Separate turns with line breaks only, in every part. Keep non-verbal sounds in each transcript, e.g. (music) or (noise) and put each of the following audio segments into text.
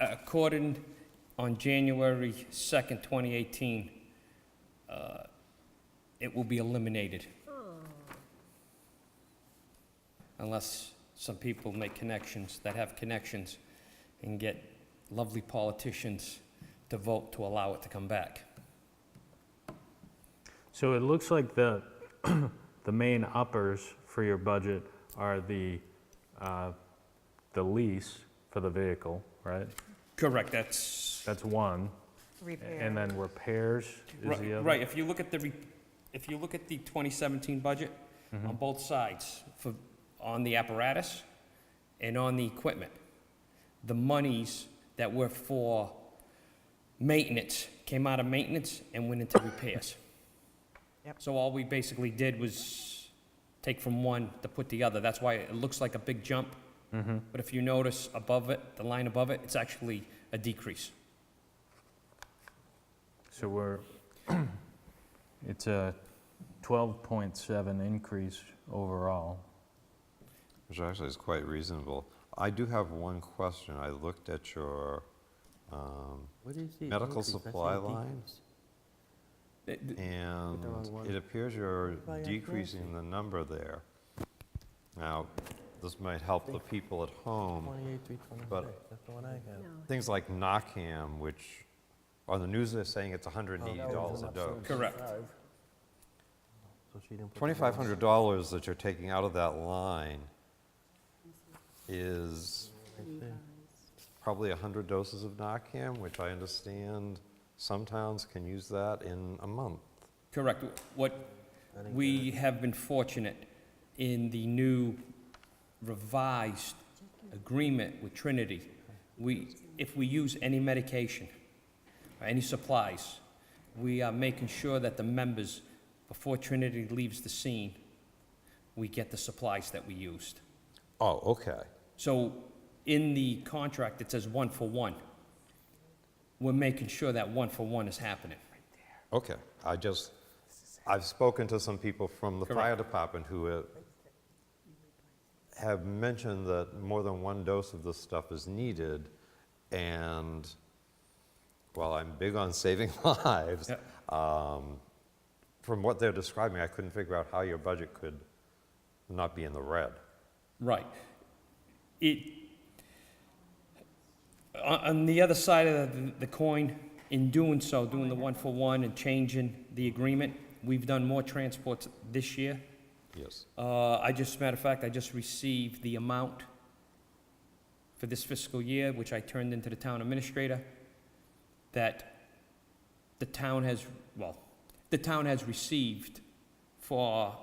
accorded on January 2nd, 2018, uh, it will be eliminated. Unless some people make connections, that have connections, and get lovely politicians to vote to allow it to come back.
So it looks like the, (clears throat) the main uppers for your budget are the, uh, the lease for the vehicle, right?
Correct, that's,
That's one.
Repair.
And then repairs is the
right,
other?
right, if you look at the, re- if you look at the 2017 budget, on both sides, for, on the apparatus and on the equipment. The monies that were for maintenance came out of maintenance and went into repairs.
Yep.
So all we basically did was take from one to put the other. That's why it looks like a big jump. But if you notice above it, the line above it, it's actually a decrease.
So we're, (clears throat) it's a 12.7 increase overall.
Which actually is quite reasonable. I do have one question. I looked at your, um,
What is the
Medical
increase? I saw
supply
a
line?
decrease.
Th- th-
and
wrong one.
it appears you're
Probably not
decreasing the number there. Now, this might help the people at home.
28, 326, that's the one I have.
Things like Narcan, which on the news they're saying it's
Oh,
$180 a dose.
Correct.
So she didn't put the numbers.
$2,500 that you're taking out of that line is probably 100 doses of Narcan, which I understand some towns can use that in a month.
Correct. What, we have been fortunate in the new revised agreement with Trinity. We, if we use any medication, or any supplies, we are making sure that the members, before Trinity leaves the scene, we get the supplies that we used.
Oh, okay.
So in the contract, it says one for one. We're making sure that one for one is happening.
Okay. I just, I've spoken to some people from the fire
Correct.
department who uh, have mentioned that more than one dose of this stuff is needed, and while I'm big on saving (laughs) lives,
Yeah.
um, from what they're describing, I couldn't figure out how your budget could not be in the red.
Right. It, on, on the other side of the, the coin, in doing so, doing the one-for-one and changing the agreement, we've done more transports this year.
Yes.
Uh, I just, matter of fact, I just received the amount for this fiscal year, which I turned into the town administrator, that the town has, well, the town has received for,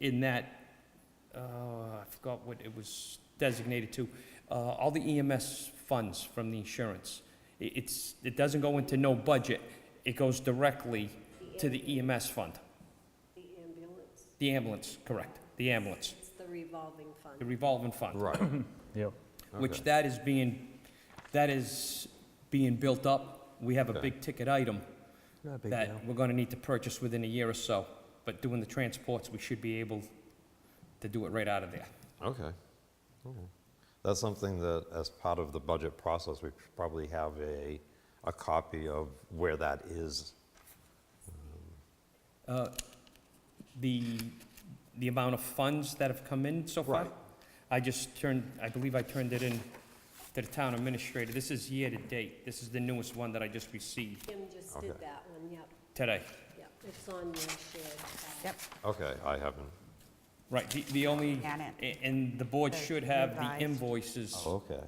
in that, uh, I forgot what it was designated to, uh, all the EMS funds from the insurance. It, it's, it doesn't go into no budget, it goes directly to the EMS fund.
The ambulance,
The ambulance, correct, the ambulance,
it's the revolving
the
fund.
revolving fund,
Right.
Yep.
which
Okay.
that is being, that is being built up. We have a
Okay.
big ticket item
Not a big deal.
that we're gonna need to purchase within a year or so, but doing the transports, we should be able to do it right out of there.
Okay. Okay. That's something that, as part of the budget process, we should probably have a, a copy of where that is.
Uh, The, the amount of funds that have come in so far,
Right.
I just turned, I believe I turned it in to the town administrator. This is year-to-date. This is the newest one that I just received
Kim just did
Okay.
that one, yep,
today.
yep, it's on your shared. file.
Yep,
Okay, I haven't.
Right, the, the only,
Got it.
a- and the board
The
should have
revised.
the invoices
Oh,
Okay.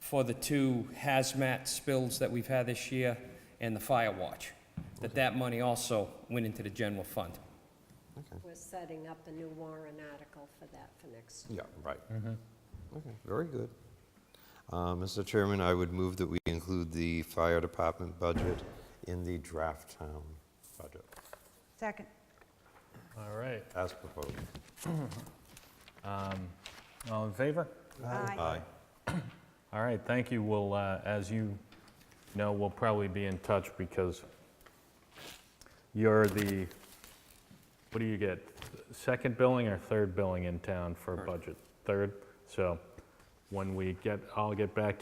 for the two hazmat spills that we've had this year and the fire watch. That that money also went into the general fund.
We're setting up a new warrant article for that for next year.
Yeah, right. Okay, very good. Uh, Mr. Chairman, I would move that we include the fire department budget in the draft town budget,
second.
All right.
as proposed.
Um, All in favor?
Aye.
All right, thank you. We'll, uh, as you know, we'll probably be in touch because you're the, what do you get? Second billing or third billing in town for budget? Third? So when we get, I'll get back to.